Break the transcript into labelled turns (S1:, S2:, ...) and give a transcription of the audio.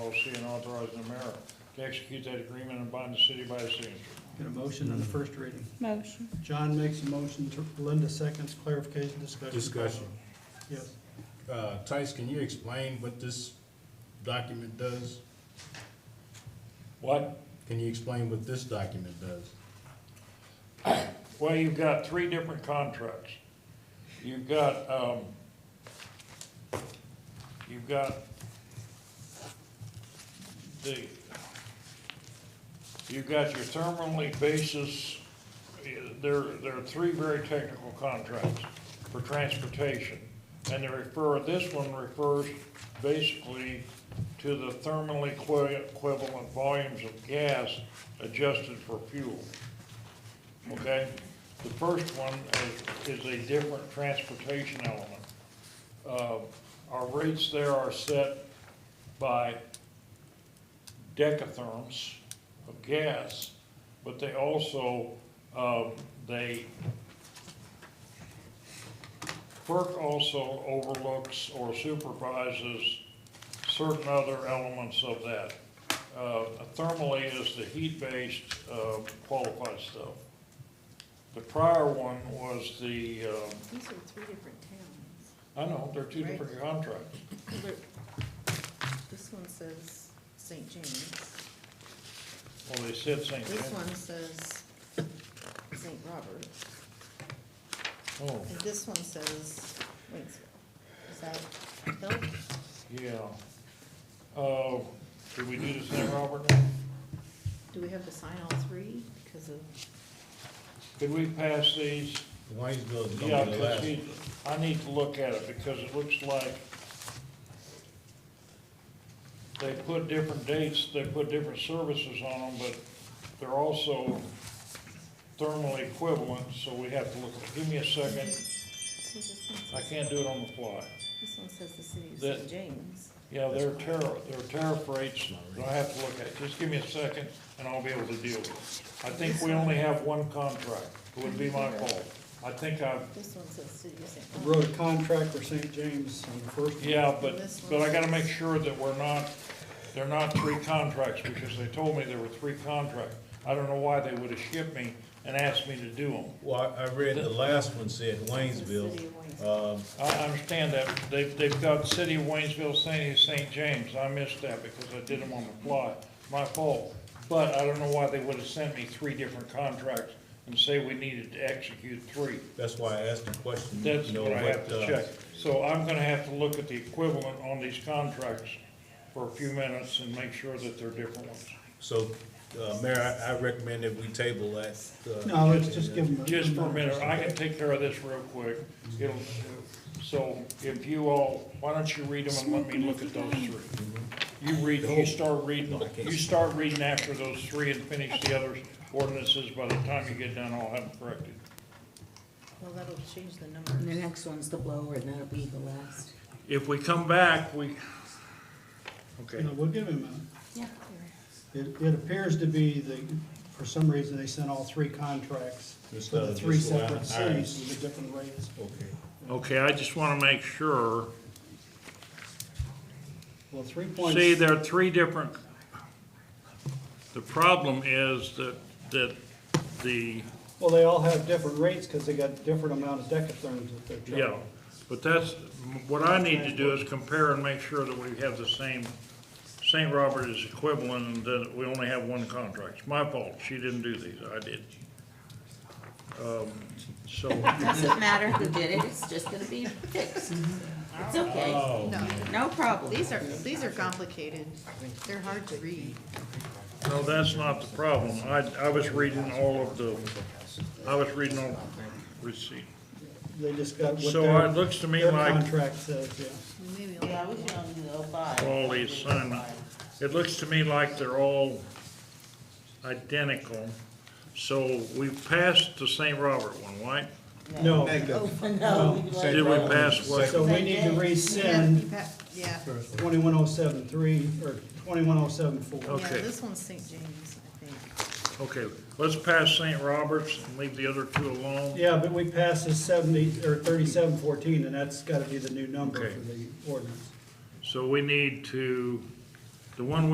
S1: LLC and authorizing the mayor to execute that agreement and bind the city by the signature.
S2: Get a motion on the first reading.
S3: Motion.
S2: John makes a motion, Ter- Linda seconds, clarification, discussion.
S4: Discussion.
S2: Yes.
S4: Uh, Tice, can you explain what this document does?
S1: What?
S4: Can you explain what this document does?
S1: Well, you've got three different contracts. You've got, um, you've got the, you've got your thermally basis, there, there are three very technical contracts for transportation. And they refer, this one refers basically to the thermally equi- equivalent volumes of gas adjusted for fuel okay? The first one is, is a different transportation element. Uh, our rates there are set by decatherms of gas, but they also, um, they, FERC also overlooks or supervises certain other elements of that. Uh, thermally is the heat-based, uh, qualified stuff. The prior one was the, um,
S5: These are three different towns.
S1: I know, they're two different contracts.
S5: Look, this one says St. James.
S1: Well, they said St.
S5: This
S1: James.
S5: one says St. Robert.
S1: Oh,
S5: And this one says Waynesville. Is that help?
S1: yeah. Uh, did we do this now, Robert?
S5: Do we have to sign all three because of,
S1: Could we pass these?
S4: Waynesville is gonna
S1: Yeah,
S4: be the
S1: because
S4: last.
S1: he, I need to look at it, because it looks like they put different dates, they put different services on them, but they're also thermally equivalent, so we have to look at it. Give me a second,
S5: see this
S1: I
S5: one?
S1: can't do it on the fly.
S5: This one says the city of
S1: That-
S5: St. James.
S1: Yeah, they're tariff, they're tariff rates, that I have to look at, just give me a second, and I'll be able to deal with it. I think we only have one contract, it would be my fault. I think I've,
S5: This one says city of St.
S2: I
S5: Robert.
S2: Wrote a contract for St. James on the first. one.
S1: yeah, but, but I gotta make sure that we're not, they're not three contracts, because they told me there were three contracts. I don't know why they would've shipped me and asked me to do them.
S6: Well, I I read the last one said
S5: The city
S6: Waynesville.
S5: of Waynesville.
S6: Um,
S1: I understand that, they've, they've got City of Waynesville, St. St. James, I missed that because I did them on the fly, my fault. But I don't know why they would have sent me three different contracts and say we needed to execute three.
S6: That's why I asked the question. you
S1: That's
S6: know,
S1: what I have to
S6: uh,
S1: check. So I'm gonna have to look at the equivalent on these contracts for a few minutes and make sure that they're different ones.
S6: So, uh, Mayor, I I recommend that we table that. uh,
S2: No, let's just give them.
S1: Just for a minute, I can take care of this real quick. It'll, so if you all, why don't you read them and let me look at those three? You read, you start reading, you start reading after those three and finish the other ordinances. By the time you get done, I'll have them corrected.
S5: Well, that'll change the
S7: And the
S5: numbers.
S7: next one's the blower, and that'll be the last.
S1: If we come back, we, okay,
S2: No, we'll give him a minute.
S7: Yeah.
S2: It, it appears to be the, for some reason, they sent all three contracts
S6: Just,
S2: for
S6: uh,
S2: the three
S6: just allow-
S2: separate
S6: all right.
S2: cities with the different rates.
S6: Okay.
S1: okay, I just wanna make sure.
S2: Well, three
S1: See,
S2: points,
S1: there are three different, the problem is that, that the
S2: well, they all have different rates because they got different amount of decatherms that they're charging.
S1: Yeah, but that's, what I need to do is compare and make sure that we have the same, St. Robert is equivalent and that we only have one contract. It's my fault, she didn't do these, I did. Um, So,
S7: Doesn't matter who did it, it's just gonna be fixed. It's okay,
S5: No,
S2: Oh.
S7: no problem.
S5: these are, these are complicated. They're hard to read.
S1: no, that's not the problem. I, I was reading all of the, I was reading all receipt.
S2: They just got what
S1: So it
S2: their,
S1: looks to me
S2: their
S1: like
S2: contract says, yeah.
S5: Maybe I'll-
S7: Yeah, we should only do the five.
S1: all these assignment, it looks to me like they're all identical. So we passed the St. Robert one, right?
S2: No,
S7: No.
S1: Did we pass what?
S2: so we need to rescind
S5: Yeah,
S2: twenty-one oh seven three, or twenty-one oh seven four.
S5: yeah,
S1: Okay.
S5: this one's St. James, I think.
S1: Okay, let's pass St. Roberts and leave the other two alone.
S2: Yeah, but we passed this seventy, or thirty-seven fourteen, and that's gotta be the new number
S1: Okay.
S2: for the ordinance.
S1: So we need to The one